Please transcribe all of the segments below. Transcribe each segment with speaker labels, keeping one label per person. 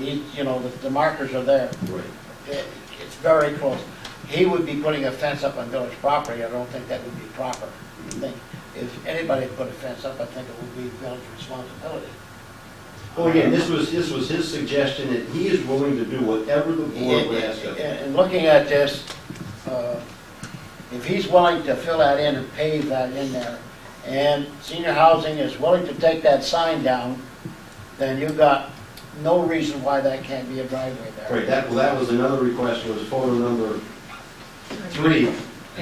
Speaker 1: You you know, the- the markers are there.
Speaker 2: Right.
Speaker 1: It- It's very close. He would be putting a fence up on village property. I don't think that would be proper. I think if anybody put a fence up, I think it would be village responsibility.
Speaker 2: Well, again, this was, this was his suggestion, and he is willing to do whatever the board would ask
Speaker 1: And-
Speaker 2: him.
Speaker 1: And looking at this, uh, if he's willing to fill that in and pave that in there, and senior housing is willing to take that sign down, then you've got no reason why that can't be a driveway there.
Speaker 2: Right, that, well, that was another request, was photo number three.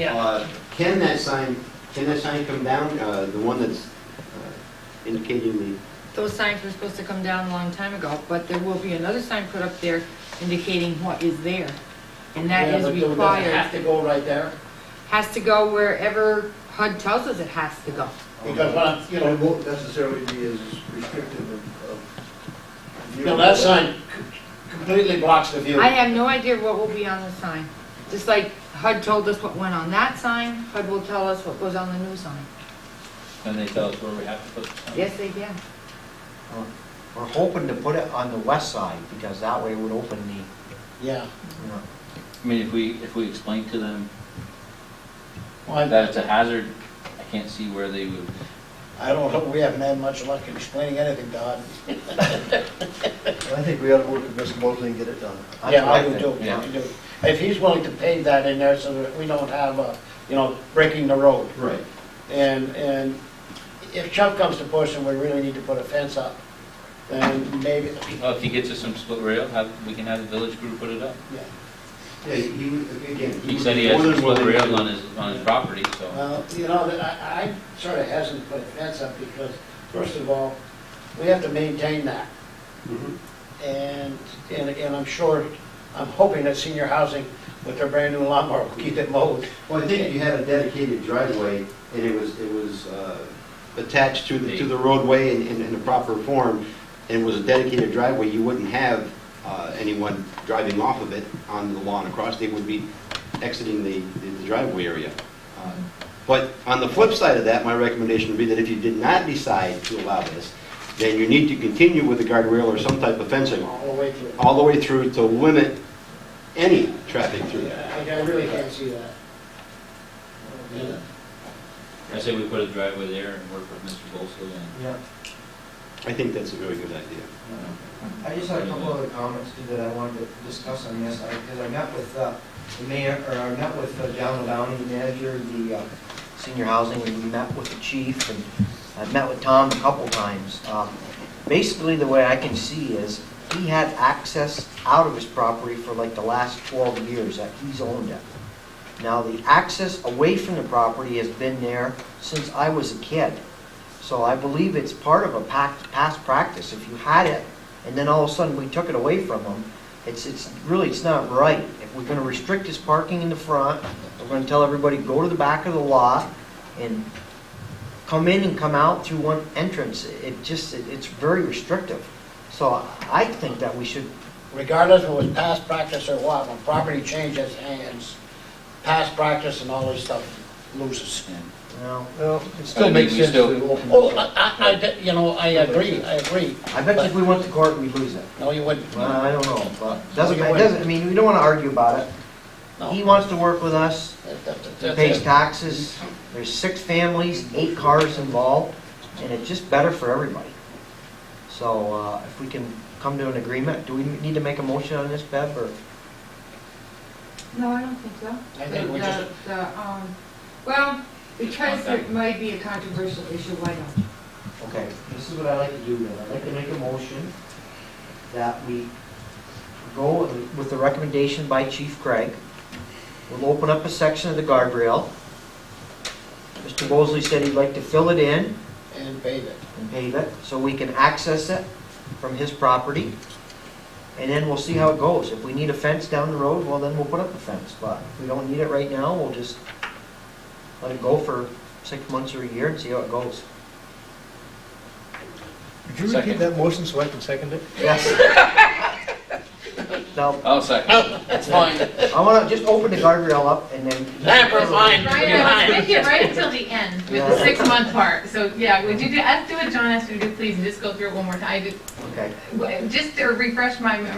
Speaker 2: Uh, Can that sign, can that sign come down, uh, the one that's uh, indicating the,
Speaker 3: Those signs were supposed to come down a long time ago, but there will be another sign put up there indicating what is there. And that
Speaker 1: Yeah,
Speaker 3: is
Speaker 1: but do- does it Have to
Speaker 3: required.
Speaker 1: go right there,
Speaker 3: Has to go wherever HUD tells us it has to go.
Speaker 1: because when, I- you
Speaker 4: But it
Speaker 1: know,
Speaker 4: won't necessarily be as restrictive of- of.
Speaker 1: you know, that sign c- completely blocks the view.
Speaker 3: I have no idea what will be on the sign. Just like HUD told us what went on that sign, HUD will tell us what goes on the new sign.
Speaker 5: And they tell us where we have to put the sign.
Speaker 3: Yes, they can.
Speaker 6: We're hoping to put it on the west side, because that way it would open the,
Speaker 1: Yeah,
Speaker 6: you know,
Speaker 5: I mean, if we, if we explain to them
Speaker 1: well, I-
Speaker 5: that it's a hazard, I can't see where they would,
Speaker 1: I don't know, we haven't had much luck in explaining anything, Don.
Speaker 4: I think we ought to work with Mr. Mosley and get it done.
Speaker 6: That's
Speaker 1: Yeah,
Speaker 6: what I
Speaker 1: I would
Speaker 6: think,
Speaker 1: do, I
Speaker 5: yeah.
Speaker 1: would do. If he's willing to pave that in there so that we don't have, uh, you know, breaking the road.
Speaker 2: right,
Speaker 1: And, and if Chuck comes to push and we really need to put a fence up, then maybe,
Speaker 5: well, oh, if he gets us some split rail, have, we can have the village crew put it up.
Speaker 1: yeah.
Speaker 2: yeah, he, would- again.
Speaker 5: He
Speaker 2: would
Speaker 5: said he
Speaker 2: be
Speaker 5: has
Speaker 2: more
Speaker 5: some
Speaker 2: than
Speaker 5: split
Speaker 2: willing
Speaker 5: rail
Speaker 2: to- Uh,
Speaker 5: on his, on his property, so.
Speaker 1: Well, you know, I, I sort of hesitant to put a fence up because, first of all, we have to maintain that.
Speaker 2: Mhm.
Speaker 1: And, and, and I'm sure, I'm hoping that senior housing with their brand new lawnmower will keep it mowed.
Speaker 2: Well, I think you had a dedicated driveway, and it was, it was uh, attached to the, to the roadway in, in in a proper form, and it was a dedicated driveway, you wouldn't have uh, anyone driving off of it on the lawn across, they would be exiting the, the driveway area. Uh, But on the flip side of that, my recommendation would be that if you did not decide to allow this, then you need to continue with the guardrail or some type of fencing,
Speaker 1: All the way through.
Speaker 2: all the way through to limit any traffic through there.
Speaker 1: I I really can't see that.
Speaker 5: Yeah. I say we put a driveway there and work with Mr. Bolso and.
Speaker 6: yeah.
Speaker 2: I think that's a very good idea.
Speaker 6: I just had a couple other comments too that I wanted to discuss on this, because I met with uh, the mayor, or I met with uh, John Lowney, the manager, the uh, senior housing, and we met with the chief, and I've met with Tom a couple times. Um, Basically, the way I can see is, he had access out of his property for like the last 12 years that he's owned it. Now, the access away from the property has been there since I was a kid. So I believe it's part of a pac- past practice. If you had it, and then all of a sudden we took it away from them, it's, it's, really, it's not right. If we're gonna restrict this parking in the front, we're gonna tell everybody, go to the back of the lot and come in and come out through one entrance, it just, it- it's very restrictive. So I think that we should,
Speaker 1: Regardless if it was past practice or what, when property changes hands, past practice and all this stuff loses.
Speaker 6: you know,
Speaker 4: Well, it
Speaker 5: I
Speaker 4: still
Speaker 5: mean,
Speaker 4: makes
Speaker 5: we
Speaker 4: sense to
Speaker 5: still-
Speaker 4: open
Speaker 1: Oh,
Speaker 4: it
Speaker 1: I,
Speaker 4: up.
Speaker 1: I- I de- you know, I agree, I agree.
Speaker 6: I bet you if we went to court, we'd lose it.
Speaker 1: No, you wouldn't.
Speaker 6: Well, I don't know, but, doesn't,
Speaker 1: Well, you
Speaker 6: it doesn't, I mean, we don't wanna argue about it.
Speaker 1: No.
Speaker 6: He wants to work with us,
Speaker 1: That- that- that-
Speaker 6: He
Speaker 1: that's
Speaker 6: pays
Speaker 1: it.
Speaker 6: taxes, there's six families, eight cars involved, and it's just better for everybody. So uh, if we can come to an agreement, do we need to make a motion on this, Bev, or?
Speaker 3: No, I don't think so.
Speaker 1: I think we
Speaker 3: The-
Speaker 1: just-
Speaker 3: the, um, Well, because
Speaker 5: Okay.
Speaker 3: it might be a controversial issue, why not?
Speaker 6: Okay, this is what I like to do then, I'd like to make a motion that we go with the recommendation by Chief Craig. We'll open up a section of the guardrail. Mr. Bosley said he'd like to fill it in,
Speaker 1: And pave it.
Speaker 6: and pave it, so we can access it from his property. And then we'll see how it goes. If we need a fence down the road, well, then we'll put up a fence, but if we don't need it right now, we'll just let it go for six months or a year and see how it goes.
Speaker 4: Could you repeat
Speaker 5: Second.
Speaker 4: that motion so I can second it?
Speaker 6: Yes. Now,
Speaker 5: I'll second.
Speaker 1: That's fine.
Speaker 6: I wanna just open the guardrail up and then,
Speaker 1: Never mind,
Speaker 7: Ryan, I was with you Oh. right until the end, with the
Speaker 6: Yeah.
Speaker 7: six-month part. So, yeah, would you do, ask, do what John asked you to do, please, and just go through it one more time. I did,
Speaker 6: Okay.
Speaker 7: Just to refresh my memory,